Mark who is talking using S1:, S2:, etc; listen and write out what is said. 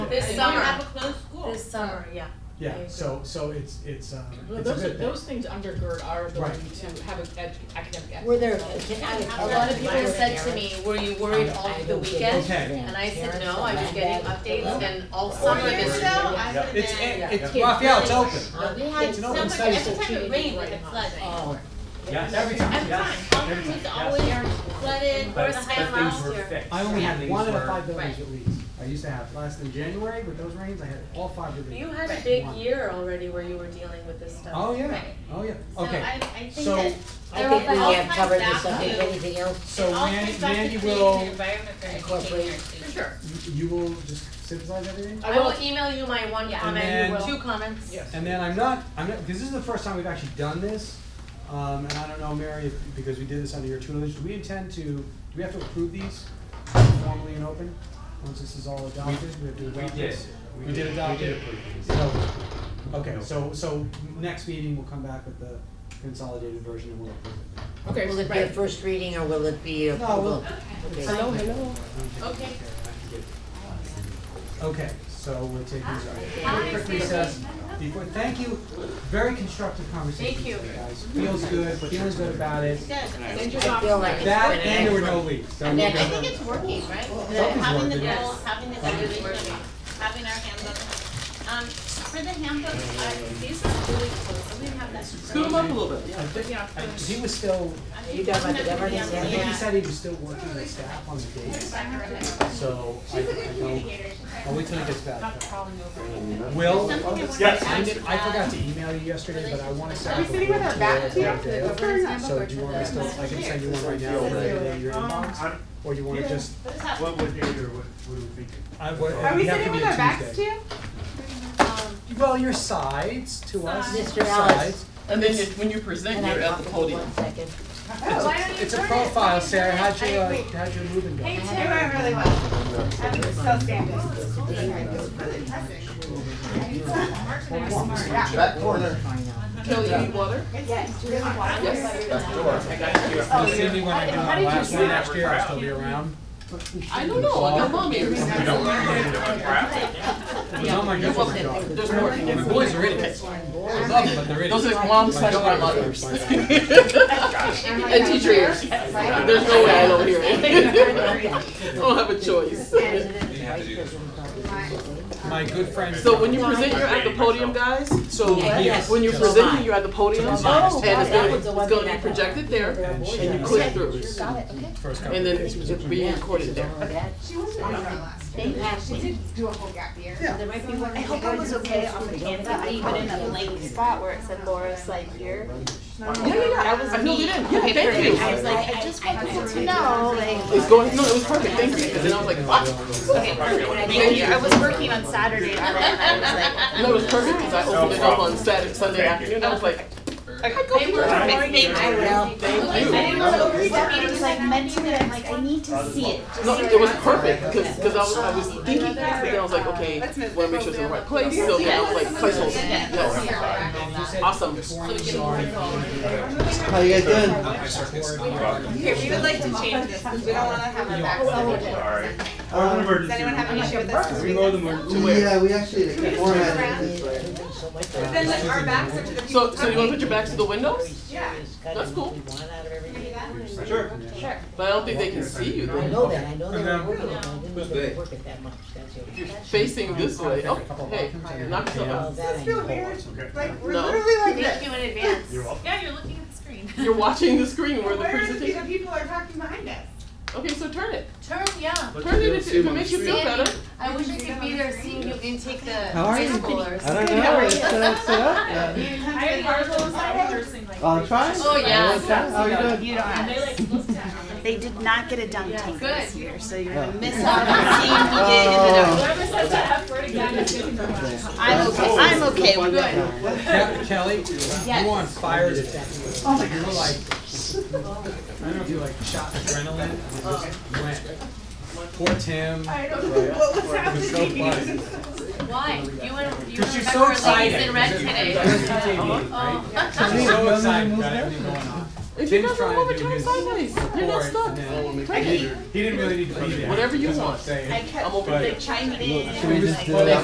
S1: This
S2: I
S1: summer.
S2: don't have a closed school.
S1: This summer, yeah. I
S3: Yeah,
S1: agree.
S3: so, so it's, it's, um,
S4: Well,
S3: it's a
S4: those, are-
S3: good thing.
S4: those things undergird our ability
S3: Right.
S4: to have an ed- academic excellence.
S5: Were there,
S4: So-
S5: can I?
S1: A lot of people said to me, were you worried all through the weekend? And I said, no, I was getting updates and all
S2: Four
S1: summer
S2: years
S1: this.
S2: ago, I
S3: Yeah.
S2: would've
S3: It's,
S2: been,
S3: it's,
S4: Yeah.
S3: Raphael, it's
S4: Yeah.
S3: open.
S2: we had
S3: it's an
S2: so
S3: open
S2: much,
S3: space,
S2: every
S4: so
S2: time
S4: she
S2: it rained, we
S4: didn't
S2: had
S4: write
S2: flooding.
S5: Oh.
S6: Yes,
S3: Every time,
S2: Every time,
S6: yes.
S2: Hawthorne was always flooded,
S6: But,
S2: or the
S6: but
S2: high
S6: things were
S2: last year.
S6: fixed.
S3: I only had
S6: Things
S3: one out of
S6: were-
S3: five buildings
S2: Right.
S3: at least. I used to have, last in January with those rains, I had all five buildings.
S1: You had a
S3: Right.
S1: big
S3: One.
S1: year already where you were dealing with this stuff.
S3: Oh, yeah,
S2: Right.
S3: oh, yeah,
S2: So
S3: okay.
S2: I, I think
S3: So,
S2: that
S5: I think we
S2: All
S5: have
S2: ties
S5: covered
S2: back
S5: this up,
S2: to-
S5: If anything else,
S3: So
S2: it all
S3: Mandy,
S2: comes back to
S3: Mandy
S2: creating an
S3: will,
S2: environment for educating
S5: incorporate-
S2: our students.
S4: Sure.
S3: you- you will just synthesize everything?
S1: I will email you my one
S2: Yeah.
S3: And
S1: comment,
S3: then-
S1: two comments.
S4: Yes.
S3: And then I'm not, I'm not, because this is the first time we've actually done this, um, and I don't know, Mary, if, because we did this under your tutelage, do we intend to, do we have to approve these formally and open? Once this is all adopted, we have to
S6: We
S3: adopt
S6: did.
S3: this? We did adopt
S6: We did
S3: it?
S6: approve things.
S3: So, okay, so, so next meeting, we'll come back with the consolidated version and we'll approve it. Oh,
S4: Okay,
S5: will it be a
S4: right.
S5: first reading or will it be
S3: we'll-
S5: approval? Okay.
S3: Hello, hello.
S2: Okay.
S3: Okay, so we'll take these, out. quick recess, before, thank you, very constructive conversation
S1: Thank you.
S3: today, guys, feels good, feeling good about it.
S2: Good.
S4: Send your
S5: I feel
S4: docs.
S5: like it's
S3: That
S5: been an
S3: and there were no
S5: excellent-
S3: leaks, so
S5: an
S2: I
S3: we'll get
S2: think
S3: them.
S2: it's working, right? The-
S3: something's
S2: Having the
S3: working.
S2: goal,
S1: Yes.
S2: having the
S1: Something's
S2: evaluation, of
S1: working.
S2: it, having our handbook. Um, for the handbook, uh, these are really cool, so we have that.
S6: Scoot them up a little bit,
S3: I
S6: yeah.
S3: think,
S4: Yeah.
S3: I- he was still,
S2: I think
S5: You got my
S2: we have to be
S5: delivery,
S2: on the-
S3: I think he
S2: yeah.
S3: said he was still working with staff on the dates, so I, I don't, I'll wait till he gets back. Will,
S2: Something I wanted to
S6: Yes.
S3: I
S2: ask
S3: did, I
S2: about-
S3: forgot to email you yesterday, but I wanna send.
S2: Are we
S3: it
S2: sitting
S3: over
S7: with our
S3: to
S7: back
S3: you
S7: to
S3: on
S7: the
S3: Monday.
S7: governance handbook
S3: So
S7: or
S3: do
S7: to
S3: you want me to
S7: the-
S3: still, I can send you one right now, right in your
S7: Um,
S3: inbox,
S8: I'm-
S3: or you wanna just,
S2: What is that?
S8: What would you, or what what are we thinking?
S3: I, what,
S7: Are we
S3: you have to
S7: sitting
S3: be a
S7: with our backs to
S3: Tuesday.
S7: you?
S3: Well, your sides to us,
S5: Sides.
S3: your
S5: Mr. Alice.
S3: sides.
S9: And then you- when you present,
S5: Can I
S9: you're at
S5: talk
S9: the
S5: for
S9: podium.
S5: one second?
S7: Oh, why don't you
S3: It's a
S7: turn it?
S3: profile,
S7: Why don't you
S3: Sarah,
S7: turn it?
S3: how'd you,
S7: I-
S3: uh,
S7: wait.
S3: how'd your moving go?
S7: Hey, Tim, I really want. I'm still standing. It's really impressive.
S5: That corner.
S4: Kelly, you need water?
S7: Yes, really want.
S6: I got you.
S9: Oh,
S3: You'll see me when I do
S7: How
S3: my
S7: did
S3: last
S7: you
S3: one
S7: see
S3: next
S6: that?
S3: year, I'll still be around.
S4: I don't
S7: Oh,
S4: know, I got mom ears.
S6: You don't want to do that.
S3: It was on my
S9: You're
S3: newborn
S9: welcome.
S3: dog.
S9: There's more. The boys are in it.
S3: I love them, but they're idiots.
S9: Those are mom slash grandma ears. And teacher ears. There's no way I don't hear it. I don't have a choice.
S3: My good friend.
S9: So when you present, you're at the podium, guys. So
S5: Yes.
S9: when you're presenting, you're at the podium and it's
S5: Oh,
S9: gonna,
S5: that
S9: be-
S5: was
S9: it's
S5: the one
S9: gonna
S5: thing I
S9: be
S5: thought.
S9: projected there
S3: And she-
S9: and you click through.
S3: First couple
S9: And then
S3: days was
S9: it's
S3: a-
S9: being recorded there.
S7: She was on her last.
S5: They have
S7: She did do a whole gap year.
S5: There might be one.
S7: I hope I was okay on the
S5: Canada.
S7: I even in a blank spot where it said Laura's like here.
S9: Yeah, yeah, yeah.
S7: That was
S9: I filled it in.
S7: me.
S9: Yeah, thank you.
S7: I was like, I just want people to know, like.
S9: It's going, no, it was perfect. Thank you. Because then I was like, what?
S7: Okay, perfect. When I came here, I was working on Saturday and I was like,
S9: No, it was perfect because I opened it up on Saturday, Sunday
S8: Thank you.
S9: afternoon. I was like,
S2: They were
S8: Thank
S2: already-
S7: you.
S2: I
S5: Well,
S2: didn't
S9: you.
S2: know it
S7: I
S2: was that
S7: was like meant to, I'm like, I need to see it. just
S9: No,
S7: so
S9: it was
S7: I know.
S9: perfect because I was I was thinking this, but then I was like, okay, want to make sure it's in the right place. So then I was like, placeholder. Yes,
S3: And you said
S9: awesome.
S3: before you started, you
S9: How you guys doing?
S7: Okay, we would like to change this, because we don't wanna have our backs. to the wall.
S8: Alright.
S7: Does anyone have an issue with this?
S10: Yeah, we actually, the format
S7: around?
S10: is this way.
S7: But then like our backs are to the people
S9: So so you want to put your backs to the windows?
S7: Yeah.
S9: That's cool.
S7: Can you do that?
S8: Sure.
S7: Sure.
S9: But I don't think they can see you.
S5: I
S9: They're
S5: know that, I know they
S3: Okay.
S5: were working, I didn't
S6: Who's
S5: really
S6: they?
S5: work it that much, that's it.
S9: facing this way. Oh, hey, knock yourself
S5: Well,
S9: out.
S5: that I
S7: This feels
S5: know.
S7: weird, like, we're
S9: No.
S7: literally like
S1: Thank you
S7: this.
S1: in advance.
S8: You're welcome.
S1: Yeah, you're looking at the screen.
S9: You're watching the screen where the
S7: Where are the pe- the
S9: presentation.
S7: people are talking behind us?
S9: Okay, so turn it.
S1: Turn, yeah.
S9: Turn it if it- if it makes you feel better.
S1: I wish I could be there seeing you intake the
S10: How are
S1: high
S10: you?
S1: schoolers.
S10: I don't know, it's uh, set up yet. I'll try.
S1: Oh, yeah.
S10: How you doing?
S7: You don't have. They did not get a dunk
S1: Yeah.
S7: tank
S1: Good.
S7: this year, so you're
S10: Oh.
S7: gonna miss out on seeing who did and who didn't.
S10: Oh.
S7: I'm okay, I'm okay with that.
S3: Ke- Kelly, you were on fire as a Oh my You were like, I don't know if you like shot adrenaline, and it just went. Poor Tim.
S7: I don't know what was
S3: It was so funny.
S7: happening.
S1: Why? You went, you
S3: Because
S1: went
S3: she's
S1: back
S3: so
S1: for ladies
S3: excited.
S1: in red today. Oh.
S7: Uh-huh.
S3: She's so excited about everything going on.
S9: If you
S3: Tim's
S9: doesn't
S3: trying
S9: love
S3: to
S9: it,
S3: do
S9: turn
S3: his
S9: sideways.
S3: report,
S9: You're not stuck.
S3: and then
S9: Take
S3: He didn't really need to be there.
S9: Whatever you
S3: That's what I'm
S9: want.
S3: saying.
S7: I kept,
S9: I'm
S7: like, chiming in.
S3: Should we
S7: and,
S3: just
S7: like,
S3: do that?